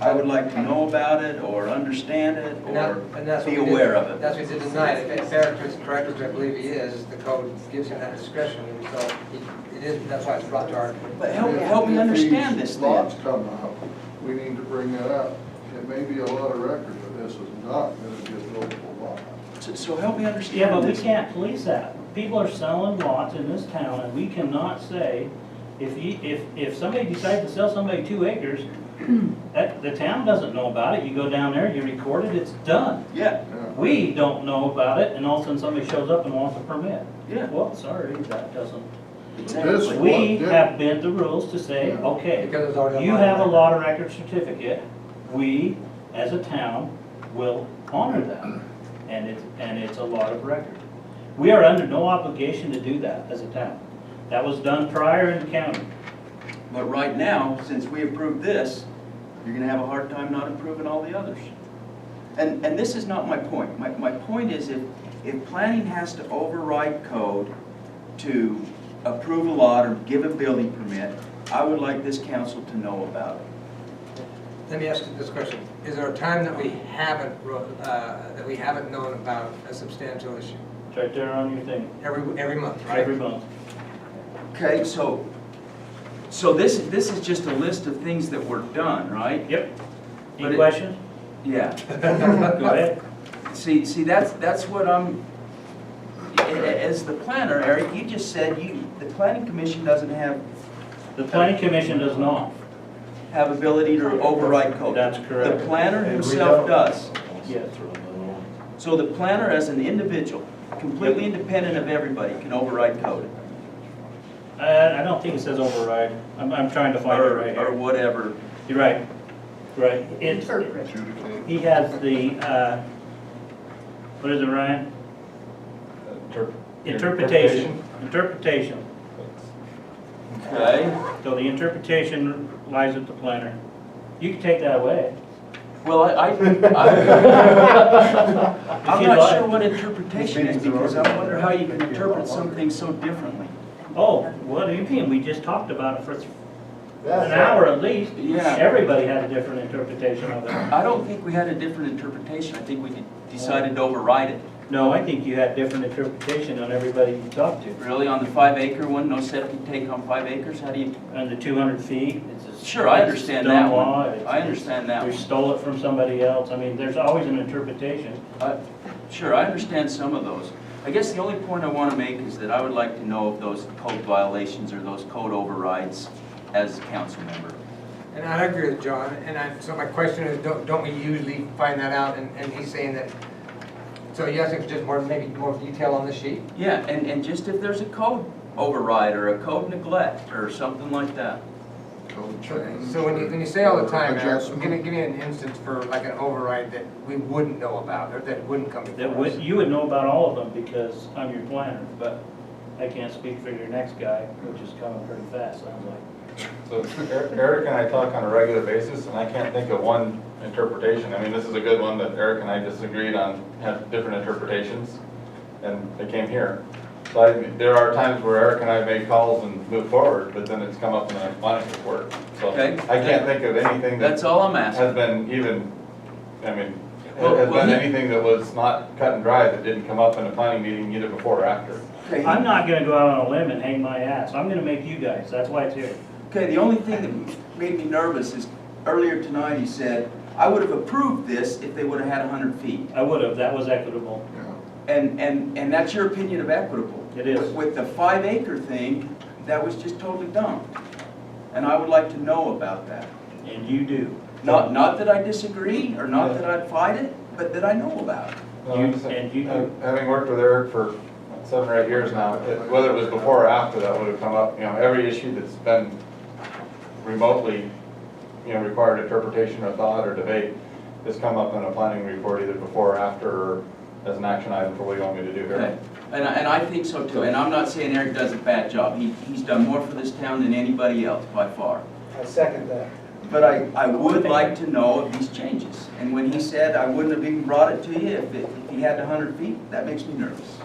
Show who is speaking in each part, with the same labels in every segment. Speaker 1: I would like to know about it, or understand it,
Speaker 2: And that- and
Speaker 1: or
Speaker 2: that's what
Speaker 1: be
Speaker 2: we did-
Speaker 1: aware of it.
Speaker 2: That's what he did tonight, if it's director, director, which I believe he is, the code gives him that discretion, and so he- it is, that's why it's brought to our.
Speaker 1: But help, help me understand this
Speaker 3: If these
Speaker 1: then.
Speaker 3: Lots come out, we need to bring that up. It may be a lot of record, but this is not gonna be a buildable lot.
Speaker 1: So- So help me
Speaker 4: Yeah,
Speaker 1: understand
Speaker 4: but we
Speaker 1: this.
Speaker 4: can't police that. People are selling lots in this town, and we cannot say, if you, if, if somebody decides to sell somebody two acres, that, the town doesn't know about it, you go down there, you record it, it's done.
Speaker 1: Yeah,
Speaker 3: Yeah.
Speaker 4: We don't know about it, and all of a sudden somebody shows up and wants a permit.
Speaker 1: Yeah.
Speaker 4: Well, sorry, that doesn't.
Speaker 3: This
Speaker 1: exactly.
Speaker 3: one
Speaker 4: We
Speaker 3: did-
Speaker 4: have bent the rules to say,
Speaker 3: Yeah.
Speaker 4: okay,
Speaker 2: Because it's already on
Speaker 4: you
Speaker 2: my
Speaker 4: have a
Speaker 2: record.
Speaker 4: lot of record certificate, we, as a town, will honor that. And it's, and it's a lot of record. We are under no obligation to do that as a town. That was done prior in the county.
Speaker 1: But right now, since we approved this, you're gonna have a hard time not approving all the others. And, and this is not my point. My, my point is if, if planning has to override code to approve a lot or give a building permit, I would like this council to know about it.
Speaker 2: Let me ask you this question, is there a time that we haven't, ro- uh, that we haven't known about a substantial issue?
Speaker 4: It's right there on your thing,
Speaker 2: Every, every month, right?
Speaker 4: every month.
Speaker 1: Okay, so, so this, this is just a list of things that were done, right?
Speaker 4: Yep.
Speaker 1: But
Speaker 4: Any
Speaker 1: it-
Speaker 4: questions?
Speaker 1: Yeah.
Speaker 4: Go ahead.
Speaker 1: See, see, that's, that's what I'm, a- a- as the planner, Eric, you just said you, the planning commission doesn't have,
Speaker 4: The planning commission does not.
Speaker 1: have ability to override code.
Speaker 4: That's correct.
Speaker 1: The planner himself does.
Speaker 4: Yes.
Speaker 1: So the planner as an individual, completely independent of everybody, can override code.
Speaker 4: Uh, I, I don't think it says override. I'm, I'm trying to find it
Speaker 1: Or,
Speaker 4: right
Speaker 1: or
Speaker 4: here.
Speaker 1: whatever.
Speaker 4: You're right, right. It's,
Speaker 3: Adjudicate.
Speaker 4: He has the, uh, what is it, Ryan? Interpretation, interpretation.
Speaker 1: Okay.
Speaker 4: So the interpretation lies with the planner. You can take that away.
Speaker 1: Well, I, I, I- I'm
Speaker 4: If you'd
Speaker 1: not
Speaker 4: like.
Speaker 1: sure what interpretation is, because I wonder how you can interpret something so differently.
Speaker 4: Oh, what do you mean? We just talked about it for an hour at least.
Speaker 1: Yeah.
Speaker 4: Everybody had a different interpretation of it.
Speaker 1: I don't think we had a different interpretation, I think we decided to override it.
Speaker 4: No, I think you had different interpretation on everybody you talked to.
Speaker 1: Really, on the five acre one, no septic tank on five acres, how do you?
Speaker 4: On the two hundred feet, it's a.
Speaker 1: Sure, I understand that
Speaker 4: stone
Speaker 1: one.
Speaker 4: wall, it's-
Speaker 1: I understand that
Speaker 4: We
Speaker 1: one.
Speaker 4: stole it from somebody else. I mean, there's always an interpretation.
Speaker 1: I- uh, Sure, I understand some of those. I guess the only point I want to make is that I would like to know of those code violations or those code overrides as a council member.
Speaker 2: And I agree with John, and I, so my question is, don't, don't we usually find that out, and, and he's saying that, so you asking for just more, maybe more detail on the sheet?
Speaker 1: Yeah, and, and just if there's a code override or a code neglect or something like that.
Speaker 3: Code change.
Speaker 2: So when you, when you say all the time, Eric,
Speaker 3: Adjustment.
Speaker 2: give me, give me an instance for like an override that we wouldn't know about, or that wouldn't come before
Speaker 4: That
Speaker 2: us.
Speaker 4: would, you would know about all of them because I'm your planner, but I can't speak for your next guy, which is coming pretty fast, sounds like.
Speaker 5: So Er- Eric and I talk on a regular basis, and I can't think of one interpretation. I mean, this is a good one that Eric and I disagreed on, had different interpretations, and they came here. So I, there are times where Eric and I make calls and move forward, but then it's come up in the planning report. So
Speaker 1: Okay.
Speaker 5: I can't think of anything
Speaker 1: That's
Speaker 5: that
Speaker 1: all I'm asking.
Speaker 5: has been even, I mean,
Speaker 1: Well,
Speaker 5: has
Speaker 1: well,
Speaker 5: been
Speaker 1: he-
Speaker 5: anything that was not cut and dry that didn't come up in a planning meeting either before or after.
Speaker 1: Okay,
Speaker 4: I'm not gonna go out on a limb and hang my ass. I'm gonna make you guys, that's why it's here.
Speaker 1: Okay, the only thing that made me nervous is earlier tonight he said, I would have approved this if they would have had hundred feet.
Speaker 4: I would have, that was equitable.
Speaker 3: Yeah.
Speaker 1: And, and, and that's your opinion of equitable.
Speaker 4: It is.
Speaker 1: With- With the five acre thing, that was just totally dumb. And I would like to know about that.
Speaker 4: And you do.
Speaker 1: Not, not that I disagree or not that I'd fight it, but that I know about it.
Speaker 5: No,
Speaker 4: You-
Speaker 5: I'm just-
Speaker 4: and you do.
Speaker 5: ha- Having worked with Eric for seven or eight years now, it- whether it was before or after, that would have come up, you know, every issue that's been remotely, you know, required interpretation or thought or debate has come up in a planning report either before or after or as an action item for what you want me to do
Speaker 1: Okay,
Speaker 5: here.
Speaker 1: and, I- and I think so too, and I'm not saying Eric does a bad job, he, he's done more for this town than anybody else by far.
Speaker 6: I second that.
Speaker 1: But I, I would like to know of these changes, and when he said, I wouldn't have even brought it to you if, it- if he had a hundred feet, that makes me nervous.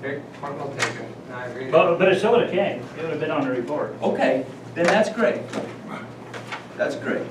Speaker 2: Okay, point well taken, and I agree.
Speaker 4: But, but it still would have came. It would have been on the report.
Speaker 1: Okay, then that's great. That's great.